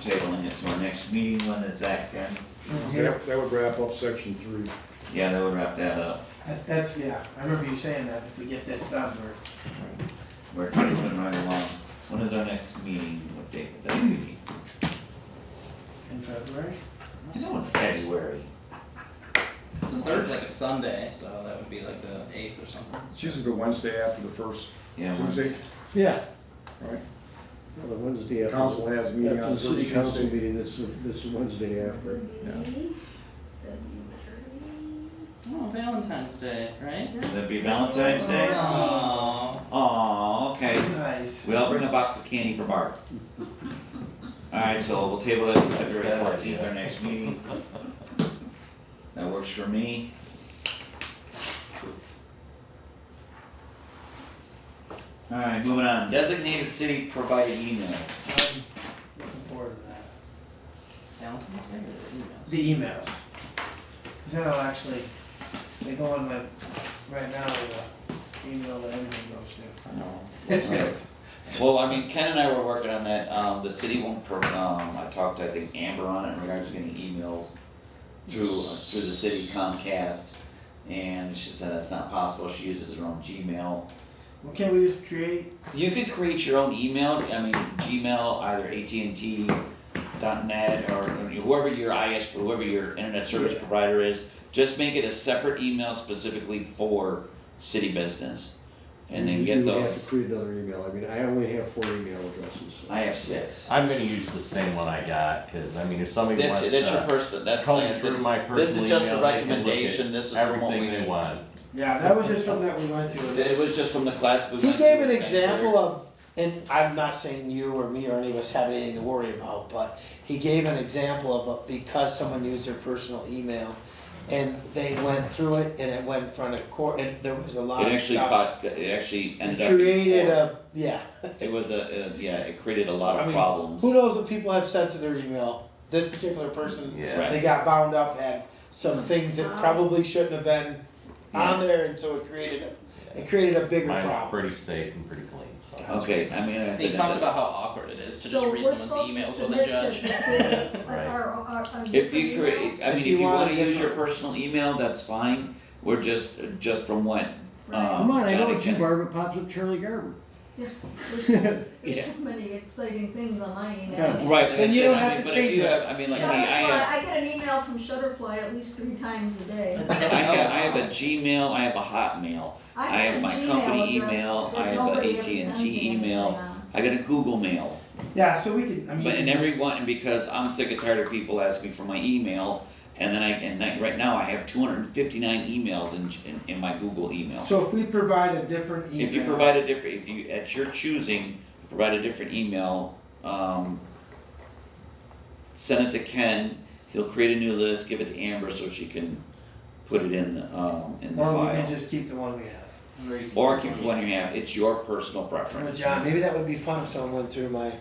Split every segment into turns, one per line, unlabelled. tabling it to our next meeting, when is that, Karen?
Yeah,
That that would wrap up section three.
Yeah, that would wrap that up.
that- that's, yeah, I remember you saying that, if we get this done, we're,
We're moving right along. When is our next meeting, what date would that be?
in February?
It's in February.
The third's like a Sunday, so that would be like the eighth or something.
It's usually the Wednesday after the first
Yeah, when-
Tuesday,
Yeah,
right?
well, the Wednesday after.
Council has a meeting
After
on
the
the first
city council
Tuesday.
meeting, this, this Wednesday after.
Oh, Valentine's Day, right?
Would that be Valentine's Day?
Oh,
Aw, okay.
Nice.
We all bring a box of candy for Bart. Alright, so we'll table that to February fourteenth, our next meeting. That works for me. Alright, moving on. Designated city provided email.
I'm Looking forward to that.
Valentine's Day or the emails?
The emails. Cause that'll actually, they go in like, right now, the email that everything goes to. Yes.
Well, I mean, Ken and I were working on that, um, the city won't, pro- um, I talked to, I think, Amber on it in regards to getting emails through, uh, through the city Comcast, and she said that's not possible, she uses her own Gmail.
Well, can't we just create,
You could create your own email, I mean, Gmail, either AT&T, .net, or whoever your IS, whoever your internet service provider is, just make it a separate email specifically for city business, and then get
Mm-hmm. You would have to
those.
create another email, I mean, I only have four email addresses. so.
I have six.
I'm gonna use the same one I got, cause I mean, if somebody wants
That's,
to.
that's your personal, that's,
comb
that's
through my
it. this
personal
is just a
email, they can look at
recommendation, this is from what
Everything they
we.
want.
yeah, that was just from that we went to.
It was just from the class we
He
went to
gave an
in second
example
grade.
of, and I'm not saying you or me or any of us have anything to worry about, but he gave an example of a- because someone used their personal email and they went through it and it went in front of court and there was a lot
It
of
actually
stuff.
caught, it actually
It
ended up. in
created
court.
a, yeah,
It was a, uh, yeah, it created a lot
I
of
mean,
problems.
who knows what people have sent to their email? This particular person,
Yeah.
Right.
they got bound up, had some things that probably shouldn't have been on there and so it created a, it created a bigger
Mine's
problem.
pretty safe and pretty clean, so.
Okay, I mean, I
They
said,
talked
that-
about how awkward it is to just read someone's emails with a
So we're
judge.
supposed to submit to the city, like,
Right.
our, our, our different
if you
email?
create, I mean, if
you
you
want
wanna
a
use your
different-
personal email, that's fine, we're just, just from what,
Right.
um,
Come on, I know
Johnny
what you
Ken-
Barbara pops up Charlie Garber.
There's so,
Yeah.
there's so many exciting things on my
Yeah.
email.
Right, like I
And you
said,
don't
I
have
mean,
to
but if
change
you
it.
have, I mean, like me, I
Shutterfly,
have,
I get an email from Shutterfly at least three times a day.
I have, I have a Gmail, I have a Hotmail,
I
I have
a
my
Gmail
company
address
email,
that
I have a
nobody ever
AT&T
sends me anything
email.
on.
I got a Google Mail.
Yeah, so we can, I mean.
But in
just-
every one, and because I'm sick and tired of people asking me for my email, and then I, and I, right now I have two hundred and fifty-nine emails in, in, in my Google email.
So if we provide a different email.
If you provide a different, if you, at your choosing, provide a different email, um, send it to Ken, he'll create a new list, give it to Amber so she can put it in, the, um, in the
Or we can
file.
just keep the one we have.
Or you can-
Or keep the one you have, it's your personal
With
preference.
John,
Maybe that would be fun if someone went through my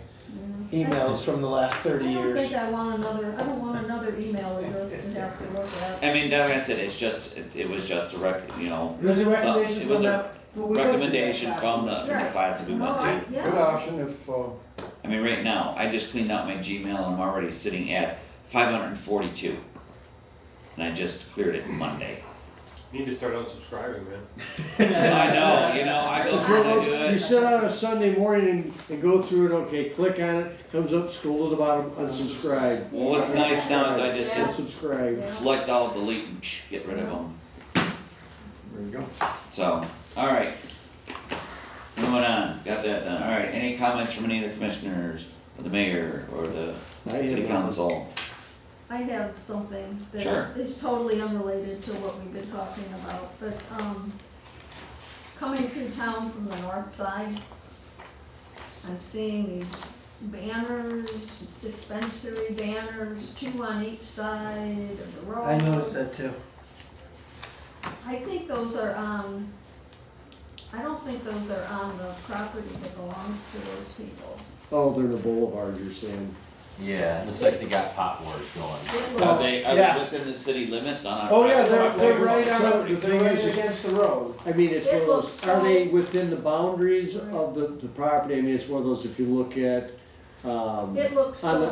Yeah.
emails from the last thirty
I don't
years.
think I want another, I don't want another email address to have to look at.
I mean, that's it, it's just, it- it was just a rec, you know,
It was a
So,
recommendation
it was
from
a
that. well, we went to that
recommendation
class.
from the, from the
Right.
class that we went
Oh,
to.
I,
Good
yeah,
option if, uh,
I mean, right now, I just cleaned out my Gmail, I'm already sitting at five hundred and forty-two. And I just cleared it Monday.
Need to start unsubscribing, man.
I know, you know, I go
It's
through
one
and
of
do
those- You
it.
sit on a Sunday morning and, and go through it, okay, click on it, comes up, scroll to the bottom, unsubscribe.
Well, what's nice now is I just
Yeah.
hit
Unsubscribe.
select all, delete, and psh, get rid of them,
There you go.
so, alright. Moving on, got that done, alright, any comments from any of the commissioners, or the mayor, or the
I have
city
none.
council?
I have something
Sure.
that is totally unrelated to what we've been talking about, but, um, coming through town from the north side, I'm seeing these banners, dispensary banners, two on each side of the road.
I noticed that too.
I think those are on, I don't think those are on the property that belongs to those people.
Oh, they're the boulevard you're saying.
Yeah, it looks like they got pot wars going.
It
Are
looks-
they, are
yeah.
they within the city limits on our?
Oh, yeah, they're,
Right,
they're
right,
right
right.
on,
The
they're
thing
right
is-
against the road.
I mean, it's
It
one of
looks
those, are
so-
they within the boundaries of the, the property? I mean, it's one of those, if you look at, um,
It looks
on the,
so